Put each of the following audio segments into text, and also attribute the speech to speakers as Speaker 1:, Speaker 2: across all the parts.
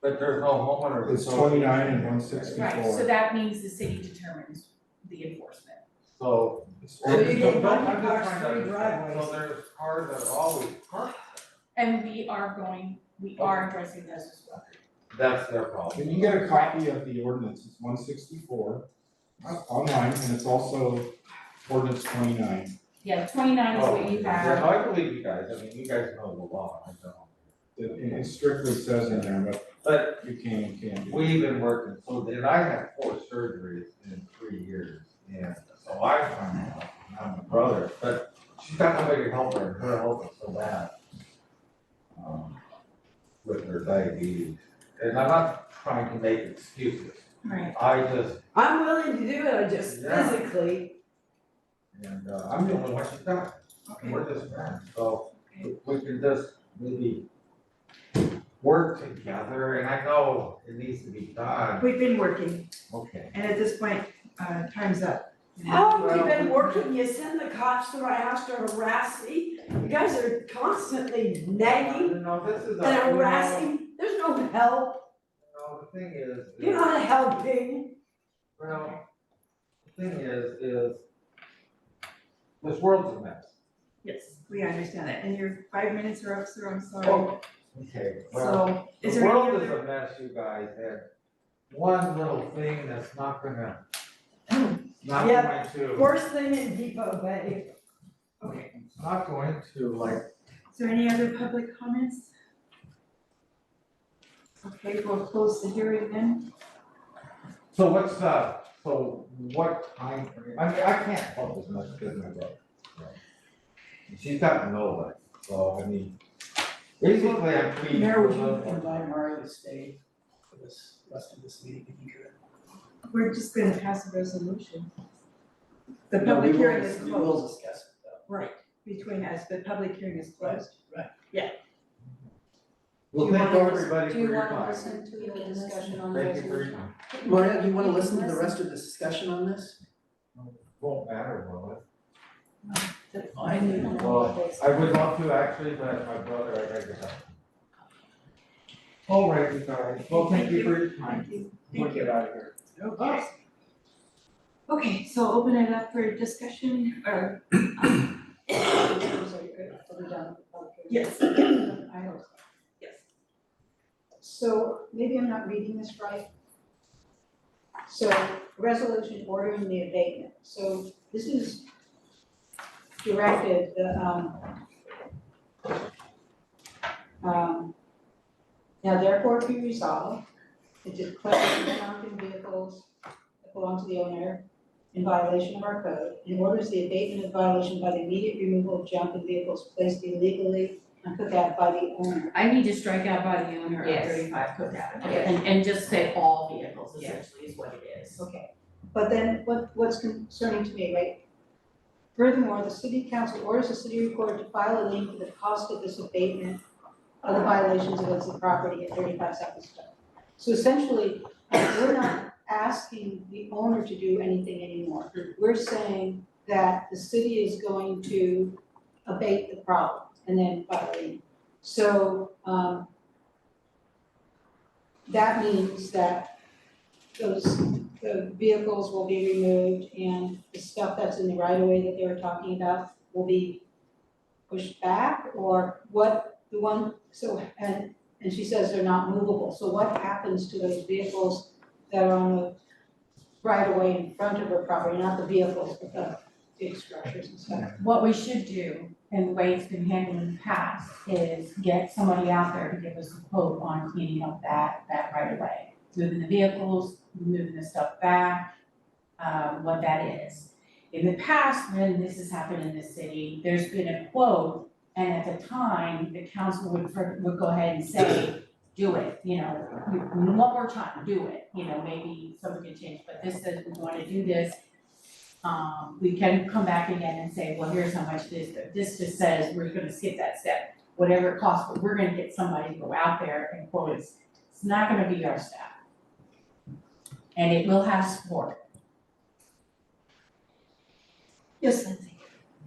Speaker 1: But there's no homeowner.
Speaker 2: It's
Speaker 1: association.
Speaker 2: twenty-nine and one sixty-four.
Speaker 3: Right, so that means the city determines the enforcement.
Speaker 1: So.
Speaker 4: So you get
Speaker 1: Don't- don't-
Speaker 4: one
Speaker 1: I'm
Speaker 4: car,
Speaker 1: just trying to
Speaker 4: three
Speaker 1: understand.
Speaker 4: driveways.
Speaker 1: So there's cars that are always parked,
Speaker 3: And we are going, we are addressing those as well.
Speaker 1: that's their problem.
Speaker 2: Can you get a copy of the ordinance, it's one sixty-four online, and it's also ordinance twenty-nine.
Speaker 3: Yeah, twenty-nine is what you
Speaker 1: Oh,
Speaker 3: have.
Speaker 1: yeah, I believe you guys, I mean, you guys know the law, I don't.
Speaker 2: It, it strictly says in there, but
Speaker 1: But
Speaker 2: you can, and can't do.
Speaker 1: we've been working, so then I had four surgeries in three years, and so I found out, and I'm a brother, but she's got nobody to help her, and her health is so bad. um, With her diabetes, and I'm not trying to make excuses,
Speaker 3: Right.
Speaker 1: I just
Speaker 4: I'm willing to do it, I just
Speaker 1: Yeah.
Speaker 4: physically,
Speaker 1: And uh, I'm the only one she's got, and we're just friends, so we- we can just maybe work together, and I know it needs to be done.
Speaker 5: We've been working,
Speaker 1: Okay.
Speaker 5: and at this point, uh, time's up.
Speaker 4: how long have you been working, you send the cops to my house to harass me, you guys are constantly nagging
Speaker 1: No, this is a, you
Speaker 4: and
Speaker 1: know,
Speaker 4: harassing, there's no help,
Speaker 1: no, the thing is,
Speaker 4: you're
Speaker 1: is,
Speaker 4: not helping.
Speaker 1: well, the thing is, is this world's a mess.
Speaker 5: Yes. We understand that, and your five minutes are up, sir, I'm sorry.
Speaker 1: Oh, Okay, well,
Speaker 5: So, is
Speaker 1: the
Speaker 5: there any
Speaker 1: world is
Speaker 5: other,
Speaker 1: a mess, you guys, and one little thing that's not gonna, not going to.
Speaker 4: Yeah. Worst thing in Depot Bay.
Speaker 1: Okay. It's not going to like,
Speaker 5: is there any other public comments? Okay, we'll close the hearing then.
Speaker 1: so what's the, so what time frame, I mean, I can't help as much as my brother. right? And She's got no life, so I mean, basically I'm pleading.
Speaker 6: Mayor, would
Speaker 1: for
Speaker 6: you
Speaker 1: love.
Speaker 6: invite Mario to stay for this rest of this meeting if you could?
Speaker 5: We're just gonna pass a resolution. The
Speaker 6: No, we
Speaker 5: public
Speaker 6: will-
Speaker 5: hearing is
Speaker 6: We will
Speaker 5: closed
Speaker 6: discuss it though.
Speaker 5: between us, the public hearing is closed.
Speaker 1: Well,
Speaker 3: Do you
Speaker 1: thank
Speaker 3: wanna
Speaker 1: everybody for
Speaker 3: Do you
Speaker 1: your
Speaker 3: wanna
Speaker 1: time.
Speaker 3: listen to the discussion on the
Speaker 1: Thank you for
Speaker 3: resolution?
Speaker 1: your time.
Speaker 6: Mario, do you wanna listen to the rest of the discussion on this?
Speaker 1: Won't matter, will it?
Speaker 6: I do.
Speaker 1: Well, I would love to actually, but my brother, I gotta get out. All right, you guys, well, thank you for your time.
Speaker 5: Thank you.
Speaker 1: We'll get out of here.
Speaker 5: Okay. Okay, so open it up for discussion or? Yes.
Speaker 7: I hope so.
Speaker 5: Yes.
Speaker 7: So maybe I'm not reading this right. So resolution ordering the abatement. So this is directed, the, um, um, now therefore be resolved, that the collection of junk and vehicles that belong to the owner in violation of our code, and orders the abatement of violation by the immediate removal of junk and vehicles placed illegally and put that by the owner.
Speaker 3: I need to strike out by the owner of
Speaker 7: Yes.
Speaker 3: thirty-five Cook Avenue
Speaker 7: Yes.
Speaker 3: and, and just say all vehicles
Speaker 7: Yeah.
Speaker 3: essentially is what it is.
Speaker 7: Okay, but then what, what's concerning to me, right? Furthermore, the city council orders the city recorder to file a lien for the cost of this abatement of the violations against the property at thirty-five South East Street. So essentially, we're not asking the owner to do anything anymore. We're saying that the city is going to abate the problem and then file a lien. So, um, that means that those the vehicles will be removed and the stuff that's in the right of way that they were talking about will be pushed back or what, the one, so, and, and she says they're not movable, so what happens to those vehicles that are on the right of way in front of her property, not the vehicles, but the big structures and stuff?
Speaker 3: What we should do, and the way it's been handled in the past, is get somebody out there to give us a quote on cleaning up that, that right of way. Moving the vehicles, moving the stuff back, um, what that is. In the past, when this has happened in the city, there's been a quote, and at the time, the council would, fir- would go ahead and say, do it, you know, one more time, do it, you know, maybe something can change, but this says we wanna do this, um, we can come back again and say, well, here's how much this, but this just says we're gonna skip that step, whatever it costs, but we're gonna get somebody to go out there and quote us. It's not gonna be our staff. And it will have support.
Speaker 7: Yes, Lindsay.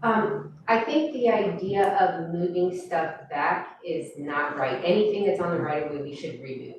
Speaker 8: Um, I think the idea of moving stuff back is not right. Anything that's on the right of way, we should remove.